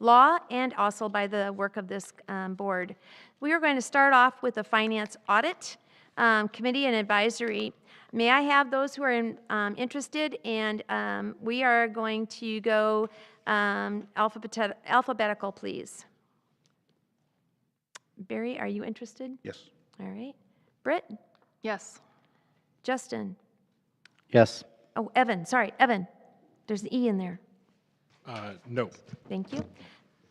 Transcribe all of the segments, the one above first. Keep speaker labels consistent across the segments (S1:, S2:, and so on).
S1: law and also by the work of this um, board. We are going to start off with the Finance Audit um, Committee and Advisory. May I have those who are in- um, interested? And um, we are going to go um, alphabet- alphabetical, please. Barry, are you interested?
S2: Yes.
S1: All right. Britt?
S3: Yes.
S1: Justin?
S4: Yes.
S1: Oh, Evan, sorry, Evan. There's an E in there.
S2: Uh, No.
S1: Thank you.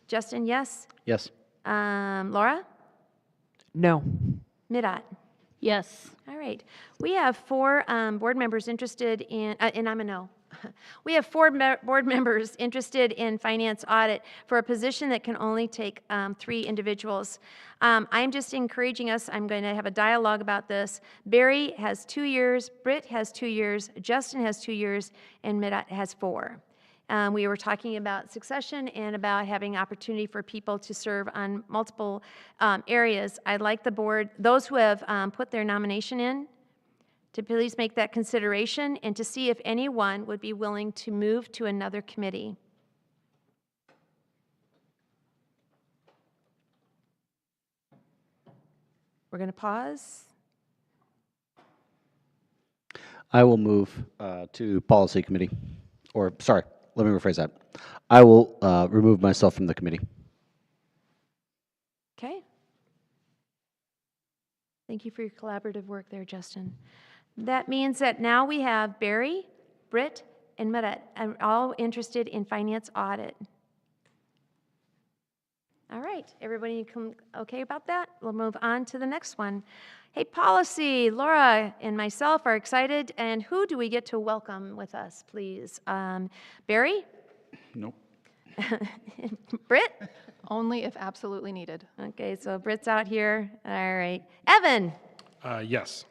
S1: Justin, yes.
S4: Yes.
S1: Um, Laura?
S3: No.
S1: Midot?
S3: Yes.
S1: All right. We have four um, board members interested in, uh, and I'm a no. We have four me- board members interested in finance audit for a position that can only take um, three individuals. Um, I'm just encouraging us, I'm going to have a dialogue about this. Barry has two years, Britt has two years, Justin has two years, and Midot has four. Um, We were talking about succession and about having opportunity for people to serve on multiple um, areas. I'd like the board, those who have um, put their nomination in, to please make that consideration and to see if anyone would be willing to move to another committee. We're going to pause.
S4: I will move uh, to Policy Committee, or, sorry, let me rephrase that. I will uh, remove myself from the committee.
S1: Okay. Thank you for your collaborative work there, Justin. That means that now we have Barry, Britt, and Meret, and all interested in finance audit. All right, everybody com- okay about that? We'll move on to the next one. Hey, policy, Laura and myself are excited, and who do we get to welcome with us, please? Um, Barry?
S2: Nope.
S1: Britt?
S3: Only if absolutely needed.
S1: Okay, so Britt's out here, all right. Evan?
S2: Uh, Yes.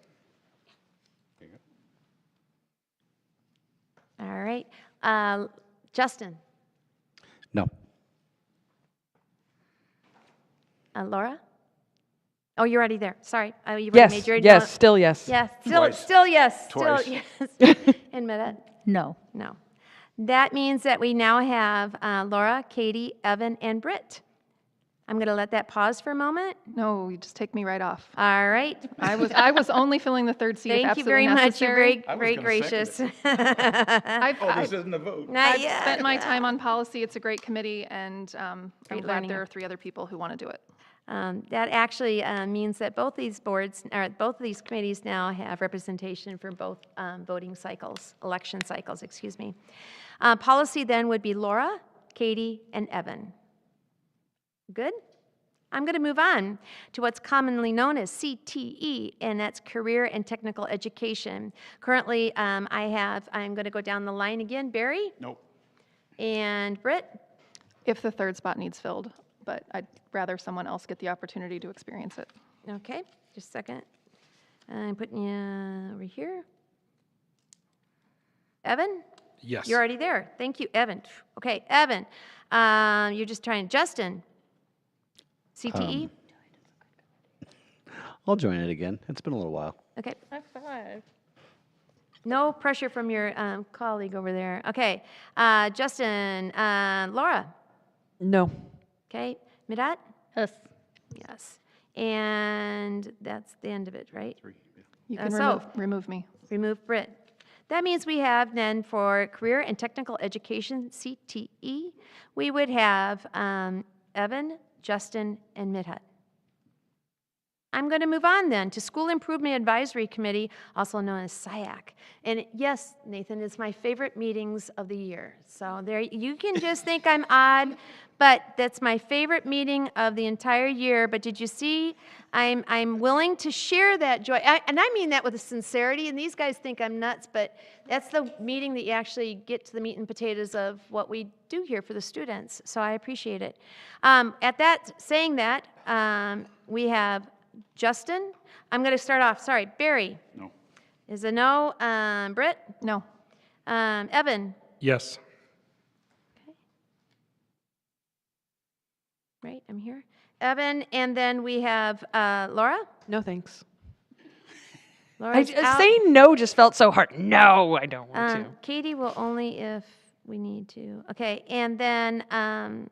S1: All right. Uh, Justin,
S4: No.
S1: uh, Laura? Oh, you're already there. Sorry. Oh, you've already
S5: Yes,
S1: made your
S5: yes, still yes.
S1: Yes, still,
S2: Twice.
S1: still yes, still
S2: Twice.
S1: yes. In minute,
S3: No.
S1: no. That means that we now have uh, Laura, Katie, Evan, and Britt. I'm going to let that pause for a moment.
S3: No, you just take me right off.
S1: All right.
S3: I was, I was only filling the third seat if
S1: Thank you
S3: absolutely
S1: very much. You're
S3: necessary.
S1: very,
S2: I was
S1: very
S2: gonna
S1: gracious.
S2: second
S3: I've,
S2: Oh,
S3: I've-
S2: isn't a vote.
S1: Not
S3: I've
S1: yet.
S3: spent my time on policy. It's a great committee, and um, I'm
S1: Great
S3: glad
S1: learning
S3: there
S1: op-
S3: are three other people who want to do it.
S1: Um, That actually uh, means that both these boards, or both of these committees now have representation for both um, voting cycles, election cycles, excuse me. Uh, Policy then would be Laura, Katie, and Evan. Good? I'm going to move on to what's commonly known as CTE, and that's Career and Technical Education. Currently, um, I have, I'm going to go down the line again, Barry
S2: Nope.
S1: and Britt.
S3: If the third spot needs filled, but I'd rather someone else get the opportunity to experience it.
S1: Okay, just a second. I'm putting you over here. Evan,
S2: Yes.
S1: you're already there. Thank you, Evan. Okay, Evan, um, you're just trying, Justin, E? CTE?
S4: I'll join it again. It's been a little while.
S1: Okay. No pressure from your um, colleague over there. Okay, uh, Justin, uh, Laura,
S5: No.
S1: okay, Midat?
S6: Yes.
S1: Yes. And that's the end of it, right?
S3: You
S1: Uh,
S3: can
S1: so-
S3: remove, remove me.
S1: Remove Brit. That means we have then for Career and Technical Education, CTE, we would have um, Evan, Justin, and Midhat. I'm going to move on then to School Improvement Advisory Committee, also known as SIAC. And yes, Nathan, it's my favorite meetings of the year. So there, you can just think I'm odd, but that's my favorite meeting of the entire year. But did you see? I'm, I'm willing to share that joy. I, and I mean that with a sincerity, and these guys think I'm nuts, but that's the meeting that you actually get to the meat and potatoes of what we do here for the students. So I appreciate it. Um, at that, saying that, um, we have Justin? I'm going to start off, sorry, Barry
S2: No.
S1: is a no, um, Britt,
S3: No.
S1: um, Evan,
S2: Yes.
S1: right, I'm here, Evan, and then we have uh, Laura?
S5: No, thanks. I,
S1: Laura's
S5: uh,
S1: out.
S5: saying no just felt so hard. No, I don't want
S1: Um,
S5: to.
S1: Katie will only if we need to, okay, and then um,